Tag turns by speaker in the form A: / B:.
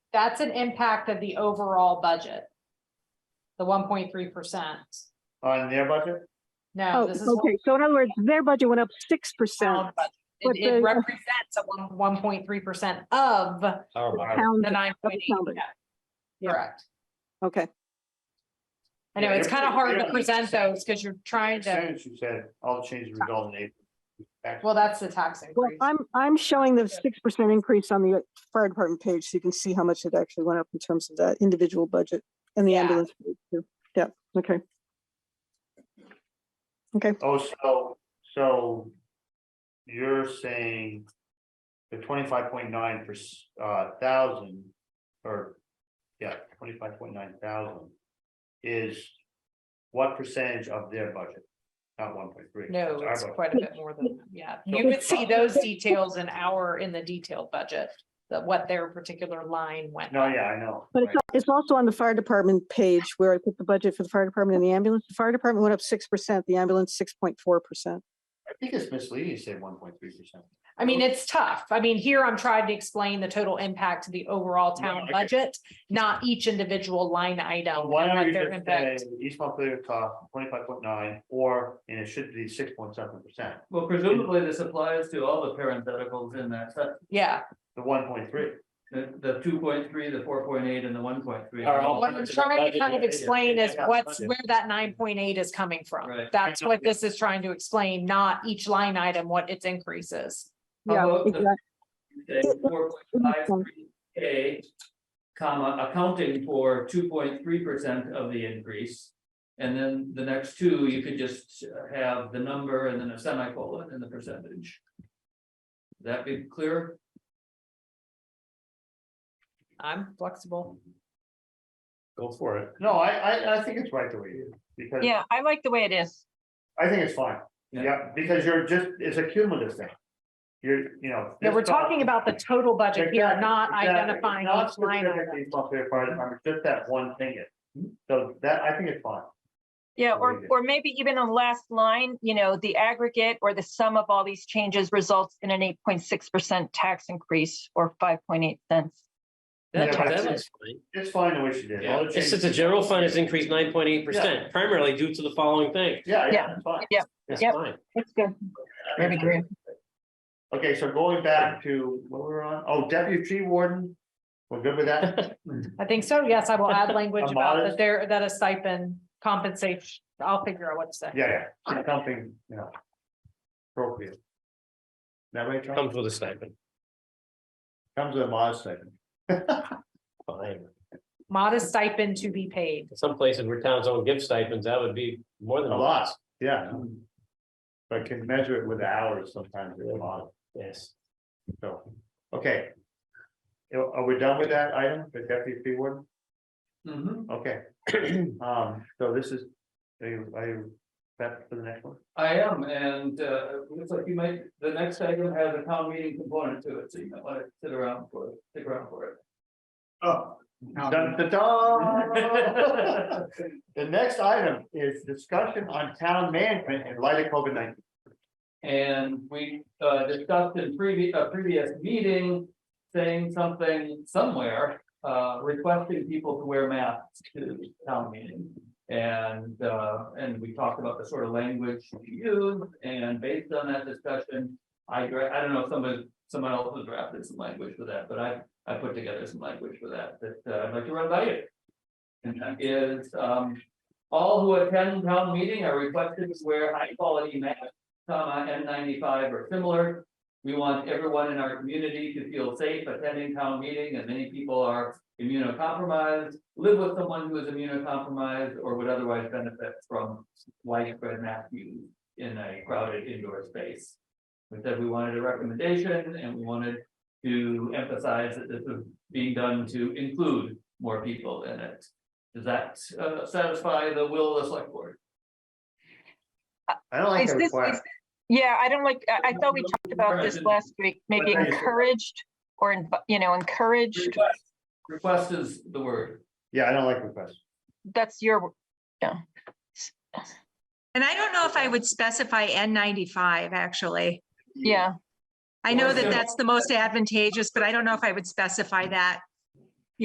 A: that's an impact of the overall budget. The one point three percent.
B: on their budget?
A: No,
C: Oh,
A: this is. what
C: okay. So in other words, their budget went up six
A: the
C: percent.
A: town budget-
C: but
A: It it
C: the-
A: represents a one, one point three percent of the nine point eight.
C: town budget. Yeah.
A: Correct.
C: Okay,
A: I know,
B: Yeah,
A: it's
B: you're
A: kind of
B: pretty
A: hard
B: clear
A: to
B: on
A: present those because you're trying
B: As soon
A: to,
B: as you said, all the changes result in April.
A: well, that's the tax
C: well,
A: increase.
C: I'm, I'm showing the six percent increase on the fire department page, so you can see how much it actually went up in terms of that individual budget and the
A: Yeah.
C: ambulance. page, too. Yeah, okay.
B: Oh, so, so you're saying the twenty-five point nine per, uh, thousand, or, yeah, twenty-five point nine thousand is what percentage of their budget? Not one point three.
A: No, it's quite a bit more than, that. yeah, you would see those details in our, in the detailed budget. That what their particular line went,
B: No, yeah, I know.
C: But it's,
B: right.
C: it's also on the fire department page where I put the budget for the fire department and the ambulance. The fire department went up six percent, the ambulance six point four percent.
B: I think it's misleading to say one point three percent.
A: I mean, it's tough, I mean, here I'm trying to explain the total impact to the overall
B: No,
A: town
B: I get it.
A: budget. Not each individual line item.
B: Why
A: and
B: don't
A: what
B: you
A: their
B: just say
A: impact-
B: East Montpelier cost twenty-five point nine, or, and it should be six point seven percent,
D: Well, presumably this applies to all the parentheticals in that, set.
A: Yeah,
B: the one point three.
D: the, the two point three, the four point eight and the one point three.
B: Are all-
A: what I'm trying to kind of explain is what's, where that nine point eight is coming from.
D: Right.
A: That's what this is trying to explain, not each line item, what its increase is.
C: Yeah, exact-
D: Four point five three K, comma, accounting for two point three percent of the increase. And then the next two, you could just have the number and then a semicolon and the percentage. That be clear?
A: I'm flexible.
B: Go for it. No, I, I, I think it's right the way it is, because
E: Yeah, I like the way it is.
B: I think it's fine.
D: Yeah.
B: Yeah, because you're just, it's a cumulative thing. You're, you know.
A: Yeah,
B: this
A: we're talking about
B: cost-
A: the total budget here,
B: Exactly,
A: not
B: exactly.
A: identifying
B: Not
A: each line
B: specifically
A: item.
B: East Montpelier Fire Department, just that one thing is. So that, I think it's fine.
E: Yeah,
B: Very
E: or,
B: good.
E: or maybe even on the last line, you know, the aggregate or the sum of all these changes results in an eight point six percent tax increase or five point eight cents.
F: That,
B: Yeah, but
F: that
B: it's-
F: looks fine.
B: It's fine the way she did. it.
D: Yeah.
B: All the
F: It says
B: changes-
F: the general fund has increased nine point eight percent, primarily due to the following thing.
B: Yeah, yeah,
E: Yeah.
B: it's fine.
F: That's
E: Yep.
F: fine.
E: That's good. Very good.
B: Okay, so going back to what we were on, oh, deputy tree warden, we're good with that?
A: I think so, yes, I will add language
B: A
A: about that
B: modest-
A: there, that a stipend compensates, I'll figure out what to say.
B: Yeah, yeah, something, you know. Appropriate. That way, Tom,
F: Comes with a stipend.
B: comes with a modest second.
F: Fine.
A: Modest stipend to be paid.
F: Some places where towns don't give stipends, that would be more than.
B: A lot, yeah. But can measure it with hours sometimes, it's a lot,
F: Yes.
B: so, okay. You know, Are we done with that item, the deputy tree warden?
D: Mhm.
B: Okay. Um, so this is, are you, are you, that for the next one?
D: I am, and uh, looks like you might, the next item has a town meeting component to it, so you might want to sit around for, it. stick around for it.
B: Oh. Dun, dun, dun. The next item is discussion on town management in light of COVID nineteen.
D: And we uh, discussed in previous, a previous meeting, saying something somewhere, uh, requesting people to wear masks to town meeting. And, uh, and we talked about the sort of language to use, and based on that discussion, I, dra- I don't know if someone, someone else has drafted some language for that, but I, I put together some language for that, that uh, I'd like to run by you. And that is, um, all who attend town meeting are requested to wear high-quality masks comma, N ninety-five or similar. We want everyone in our community to feel safe attending town meeting, and many people are immunocompromised, live with someone who is immunocompromised, or would otherwise benefit from widespread mass use in a crowded indoor space. We said we wanted a recommendation, and we wanted to emphasize that this is being done to include more people in it. Does that uh, satisfy the will of the select board?
B: I don't like
E: Is
B: the
E: this-
B: requirement.
E: is- Yeah, I don't like, I, I thought we talked about this last week, maybe
B: Right.
E: encouraged or, inv- you know, encouraged.
D: Request- Request is the word.
B: Yeah, I don't like requests.
E: That's your,
G: And I don't know if I would specify N ninety-five, actually.
E: yeah.
G: I know
D: Yeah.
G: that that's the most advantageous, but I don't know if I would specify that.